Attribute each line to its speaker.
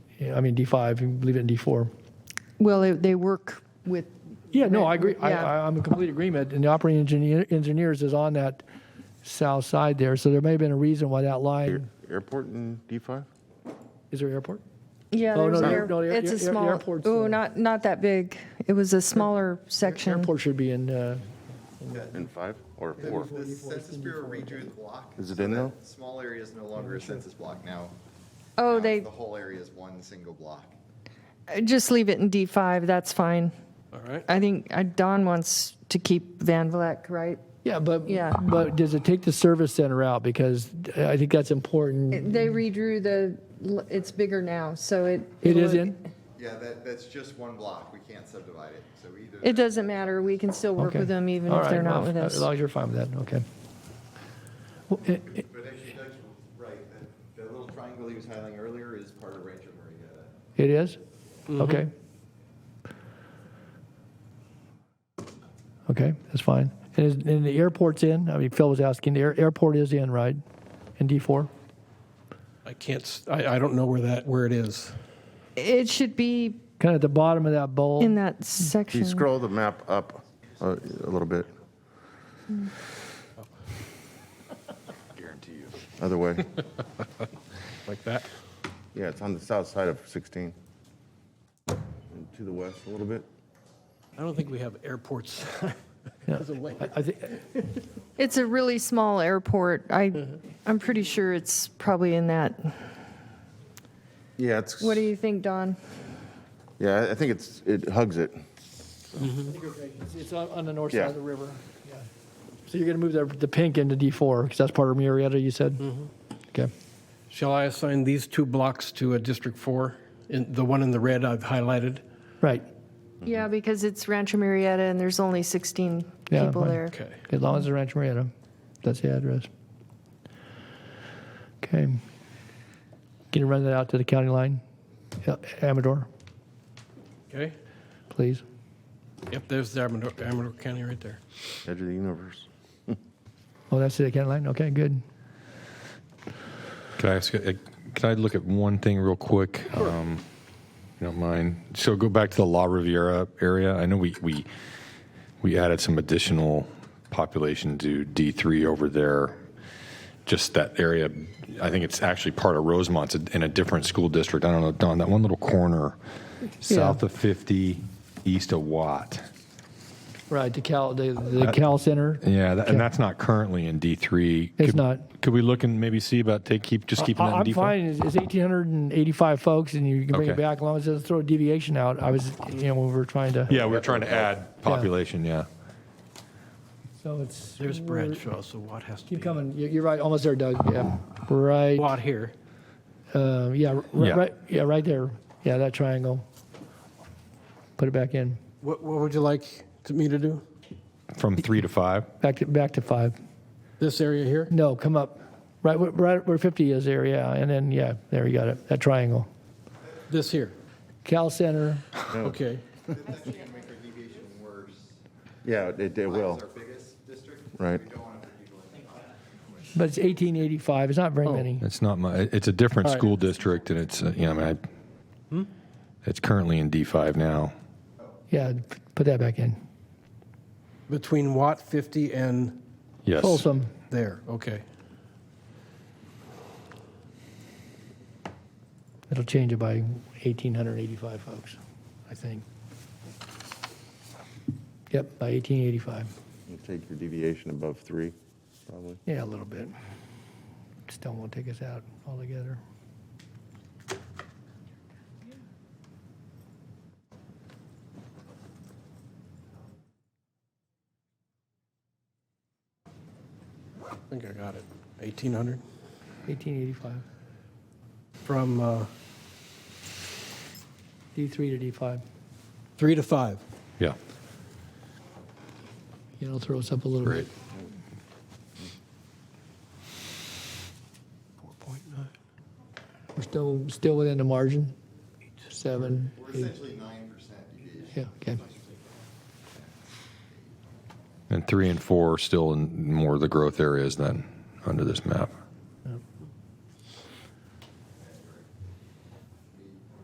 Speaker 1: Yeah, I mean, D5, you leave it in D4.
Speaker 2: Well, they- they work with,
Speaker 1: Yeah, no, I agree. I,
Speaker 2: Yeah.
Speaker 1: I- I'm in complete agreement. And the operating engineer, engineers is on that south side there. So there may have been a reason why that line,
Speaker 3: Airport in D5?
Speaker 1: is there airport?
Speaker 4: Yeah,
Speaker 1: Oh,
Speaker 4: there's
Speaker 1: no,
Speaker 4: an
Speaker 1: no,
Speaker 4: air-
Speaker 1: no, the air-
Speaker 4: it's
Speaker 1: air-
Speaker 4: a small,
Speaker 1: airport's, uh,
Speaker 4: oh, not, not that big. It was a smaller section.
Speaker 1: Airport should be in, uh,
Speaker 3: In 5 or
Speaker 5: The
Speaker 3: 4?
Speaker 5: the Census Bureau redrew the block.
Speaker 3: Is it
Speaker 5: so
Speaker 3: in
Speaker 5: that
Speaker 3: though?
Speaker 5: Small area is no longer a census block now.
Speaker 4: Oh,
Speaker 5: Now
Speaker 4: they,
Speaker 5: The whole area is one single block.
Speaker 4: just leave it in D5, that's fine.
Speaker 6: All right.
Speaker 4: I think uh, Don wants to keep Van Vleck, right?
Speaker 1: yeah, but,
Speaker 4: Yeah.
Speaker 1: but does it take the service center out? Because I think that's important.
Speaker 4: They redrew the, l- it's bigger now, so it.
Speaker 1: It is
Speaker 4: will-
Speaker 1: in?
Speaker 5: Yeah, that, that's just one block. We can't subdivide it. So either.
Speaker 4: It doesn't matter, we can still work
Speaker 1: Okay.
Speaker 4: with them even
Speaker 1: All
Speaker 4: if they're
Speaker 1: right,
Speaker 4: not
Speaker 1: well, uh,
Speaker 4: with us.
Speaker 1: As long as you're fine with that, okay. Well, it- it-
Speaker 5: But actually, Doug's right. That, that little triangle he was highlighting earlier is part of Rancho Maria.
Speaker 1: It is? Okay. Okay, that's fine. And is, and the airport's in? I mean, Phil was asking, the air- airport is in, right? In D4?
Speaker 6: I can't, s- I, I don't know where that, where it is.
Speaker 4: It should be
Speaker 1: Kind of at the bottom of that bowl?
Speaker 4: in that
Speaker 3: Can you
Speaker 4: section.
Speaker 3: scroll the map up uh, a little bit?
Speaker 5: Guarantee you.
Speaker 3: Other way.
Speaker 6: Like that?
Speaker 3: Yeah, it's on the south side of 16. And to the west a little bit.
Speaker 6: I don't think we have airports.
Speaker 1: Yeah.
Speaker 6: as a link.
Speaker 1: I- I think,
Speaker 4: It's a really small airport. I,
Speaker 1: Mm-hmm.
Speaker 4: I'm pretty sure it's probably in that.
Speaker 3: Yeah, it's,
Speaker 4: What do you think, Don?
Speaker 3: yeah, I- I think it's, it hugs it.
Speaker 1: It's- It's on- on the north
Speaker 3: Yeah.
Speaker 1: side of the river. Yeah. So you're going to move the, the pink into D4, because that's part of Murrieta, you said? Okay.
Speaker 6: Shall I assign these two blocks to a District 4? And the one in the red I've highlighted?
Speaker 1: Right.
Speaker 4: Yeah, because it's Rancho Marietta and there's only 16
Speaker 1: Yeah,
Speaker 4: people
Speaker 1: fine.
Speaker 4: there.
Speaker 6: Okay.
Speaker 1: As long as it's Rancho Murrieta, that's the address. Okay. Can you run that out to the county line? Yeah, Amador,
Speaker 6: Okay?
Speaker 1: please.
Speaker 6: Yep, there's the Amador, Amador County right there.
Speaker 3: Edge of the universe.
Speaker 1: Oh, that's the county line? Okay, good.
Speaker 7: Can I ask? you- Can I look at one thing real quick? Um, if you don't mind. So go back to the La Riviera area. I know we we we added some additional population to D three over there. Just that area. I think it's actually part of Rosemont it's in a different school district. I don't know, Don. That one little corner, south of fifty, east of Watt.
Speaker 1: Right, the Cal, the, the Cal Center.
Speaker 7: Uh, Yeah, that, and that's not currently in D three.
Speaker 1: It's not.
Speaker 7: Could we look and maybe see about take keep just keeping that
Speaker 1: I-
Speaker 7: in D
Speaker 1: I'm
Speaker 7: four?
Speaker 1: fine, it's it's 1,885 folks, and you can bring it
Speaker 7: Okay.
Speaker 1: back, as long as it doesn't throw a deviation out. I was, you know, when we were trying to.
Speaker 7: Yeah, we were trying to add population, yeah.
Speaker 1: So it's.
Speaker 6: There's
Speaker 1: we're-
Speaker 6: Bradshaw, so Watt has to be.
Speaker 1: Keep coming, You- you're right, almost there, Doug, yeah. Right,
Speaker 6: Watt here.
Speaker 1: uh, yeah, r-
Speaker 7: Yeah.
Speaker 1: right, yeah, right there, yeah, that triangle. Put it back in.
Speaker 6: What, what would you like to- me to do?
Speaker 7: From three to five?
Speaker 1: Back to, back to five.
Speaker 6: This area here?
Speaker 1: No, come up. Right, where- right where 50 is there, yeah. And then, yeah, there you got it. That triangle.
Speaker 6: This here?
Speaker 1: Cal Center.
Speaker 6: Okay.
Speaker 5: That's actually going to make our deviation worse.
Speaker 3: Yeah, it, it
Speaker 5: Black
Speaker 3: will.
Speaker 5: is our biggest district.
Speaker 3: Right.
Speaker 5: We don't want to deviate.
Speaker 1: But it's 1885. It's not very
Speaker 7: Oh.
Speaker 1: many.
Speaker 7: It's not my, it's a different
Speaker 6: All right.
Speaker 7: school district and it's, uh, you know, I mean, I- it's currently in D5 now.
Speaker 1: Yeah, p- put that back in.
Speaker 6: Between Watt 50 and
Speaker 7: Yes.
Speaker 1: Folsom.
Speaker 6: there, okay.
Speaker 1: It'll change it by 1885 folks, I think. Yep, by 1885.
Speaker 3: You'll Take your deviation above 3, probably.
Speaker 1: Yeah, a little bit. Still won't take us out altogether.
Speaker 6: I think I got it. 1800
Speaker 1: 1885.
Speaker 6: from uh,
Speaker 1: D3 to D5.
Speaker 6: 3 to 5.
Speaker 7: Yeah.
Speaker 1: Yeah, It'll throw us up a little bit.
Speaker 7: Great.
Speaker 1: We're still, still within the margin? Seven,
Speaker 5: We're
Speaker 1: eight,
Speaker 5: essentially 9% deviation.
Speaker 1: yeah, okay.
Speaker 7: And three and four are still in more of the growth areas then, under this map.